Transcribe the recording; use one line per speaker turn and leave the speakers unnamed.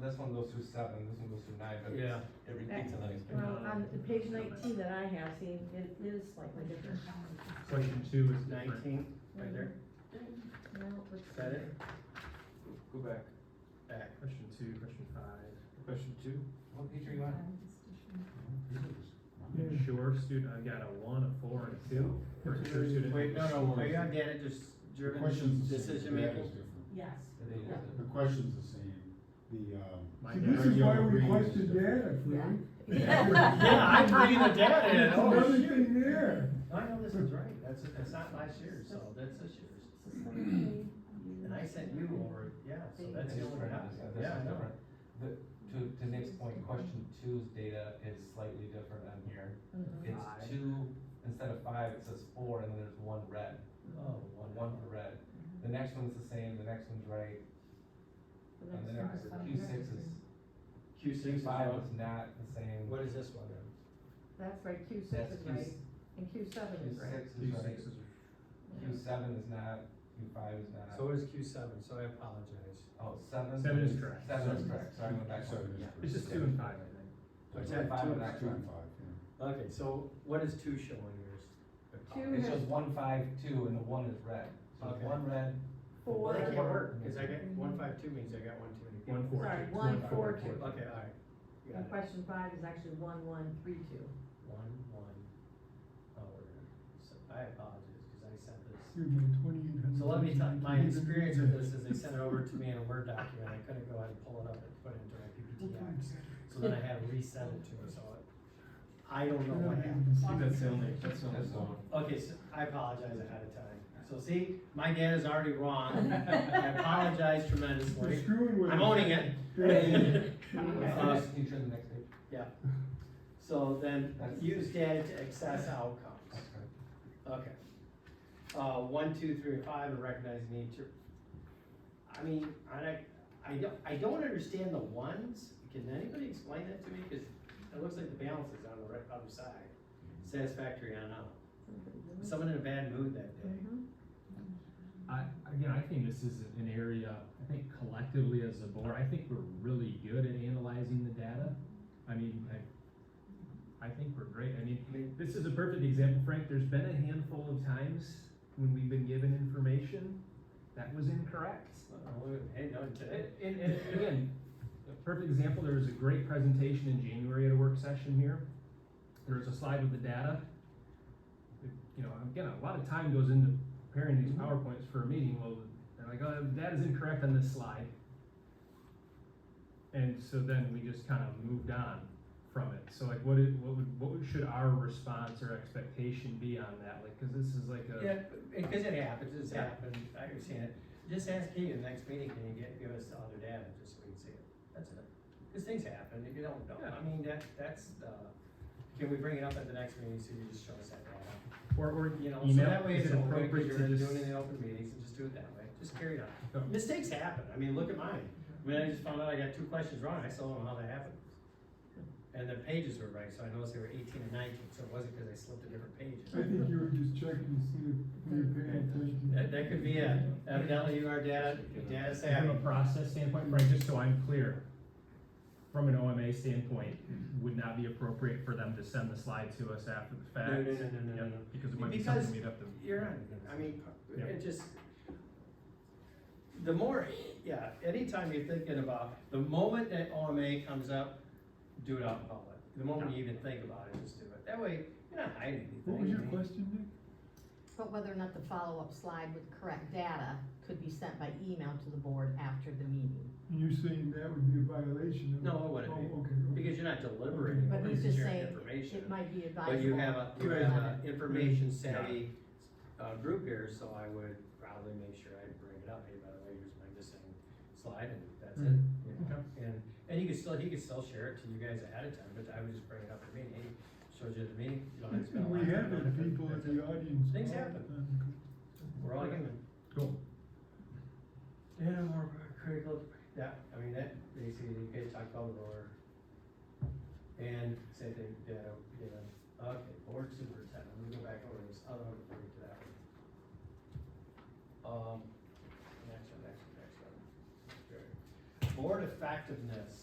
this one goes through seven, this one goes through nine, but
Yeah.
it's- it repeats in the next page.
Well, on the page nineteen that I have, see, it is slightly different.
Question two is different.
Nineteen, right there,
No, let's
is that
see.
it?
Go back. Back, question two, question five. Question two?
What page are you on?
Sure, student, I got a one, a four, and a two. For sure, student.
Wait, no, no,
Sure.
are you on data just
The
driven
question's the same.
decision
The data's
making?
different.
Yes.
The data is
The question's the same, the, um.
My
See,
dad-
this is why
Regular
we
reading is
question
different.
data, Frank.
Yeah, I'm reading the data, and,
It's
oh,
another
shoot.
thing there.
I know this is right, that's, that's not last year, so that's this year's, and I sent you over, yeah, so that's the only
different.
copy,
This
yeah,
is
I know.
different. The, to, to Nick's point, question two's data is slightly different on here.
Mm-hmm.
Five.
It's two, instead of five, it says four, and then there's one red,
Oh,
one, one for red.
Mm-hmm.
The next one's the same, the next one's right, and the next, Q six is, Q
Q six
five
five,
is not the same.
what is this one then?
That's right, Q six
That's
is
Q
right, and Q seven
Q
is right.
six is right,
is.
Q seven is not, Q five is not.
So what is Q seven, so I apologize.
Oh, seven.
Seven is correct.
Seven is correct, sorry, I went back
Seven
one.
is
Yeah.
correct.
It's just two and five, I think.
It's
It's at five and
two and
nine.
five, yeah.
Okay, so what is two showing yours?
Two
It's
has
just one, five, two, and the one is red. So it's
Okay.
one red,
Well,
four,
that can't
Four.
work, cause I got one five two means I got one too many. people.
One, four,
sorry,
two.
one,
One,
four,
four,
two.
Okay, alright, got
And
it,
question five is actually one, one, three, two.
one, one. Oh, we're gonna, so I apologize, cause I sent this.
Dude, my 2800
So let me tell, my experience with this is they sent it over to me in a Word document, I couldn't go ahead and pull it up and put it into my PPTX, so then I had to resend it to her, so I, I don't know what happened.
that's the only, that's
that's the one.
Okay, so I apologize ahead of time, so see, my dad is already wrong, I apologize
You're
tremendously,
screwing with
I'm
us.
owning it.
Yeah.
What's the
Uh,
next feature, the next page?
So then,
That's-
use data to access outcomes.
That's correct.
Okay. Uh, one, two, three, and five, and recognize nature. I mean, I, don't- I don't, I don't understand the ones, can anybody explain that to me? Cause it looks like the balance is on the right, other side, satisfactory on out. Someone in a bad mood that day.
Mhm.
I, again, I think this is an area, I think collectively as a board, I think we're really good at analyzing the data. I mean, I, I think we're great. I mean, this is a perfect example, Frank. There's been a handful of times when we've been given information that was incorrect.
Uh, Hey, no, today,
And, and, and again, a perfect example, there was a great presentation in January at a work session here. There was a slide with the data. You know, again, a lot of time goes into preparing
Mm-hmm.
these PowerPoints for a meeting, well, they're like, oh, the data's incorrect on this slide. And so then we just kind of moved on from it, so like, what it, what would, what would- should our response or expectation be on that, like, cause this is like a.
Yeah, because it happens, it's
Yeah.
happened, I understand it. Just ask Keegan, next meeting, can you get, give us the other data, just so we can see it, that's it. Cause things happen, if you don't know, I mean, that, that's, uh, can we bring it up at the next meeting, so you just show us that data?
Or, or,
You know, so
email,
that way it's
is it
open, because
appropriate
you're
to
doing it
just?
in open meetings, and just do it that way, just carry it
Go.
on. Mistakes happen, I mean, look at mine, I mean, I just found out I got two questions wrong, I still don't know how that happened. And the pages were right, so I noticed they were eighteen and nineteen, so it wasn't because I slipped a different page.
I think you were just checking to see if we were paying attention.
That, that could be it. Evidently, you are data, data
From a
savvy.
process standpoint, Frank, just so I'm clear, from an OMA standpoint, would not be appropriate for them to send the slide to us after the fact?
No, no, no, no, no,
Yep,
no.
Because it might be something
Because
we'd have to.
You're on, I mean,
Yeah.
it just, the more, yeah, anytime you're thinking about, the moment that OMA comes up, do it out in public. The moment you even think about it, just do it. That way, you're not hiding anything.
What was your question,
But whether or not the follow-up slide with correct data could be sent by email to the board after the meeting.
Nick? You're saying that would be a violation of?
No, it wouldn't be.
Oh, okay, okay.
Because you're not deliberating,
But
you're
he's just
sharing
saying,
information.
it might be advisable.
But you have a, you
Right.
have an information savvy, uh, group here, so I would probably make sure I bring it up, hey, by the way, here's my missing slide, and that's it. you know? And, and you could still, he could still share it to you guys ahead of time, but I would just bring it up at the meeting, hey, showed you at the meeting, you don't have to spend a lot
We
of time
have
on
had
it, but
people
that's
in the
it.
audience.
Things
all the
happen.
time.
We're all human.
Cool.
Yeah, more critical, yeah, I mean, that, basically, you guys talked about the roller. And same thing, yeah, yeah, okay, board superintendent, let me go back over this other one before we get to that one. Um, next one, next one, next one. Sure. Board effectiveness.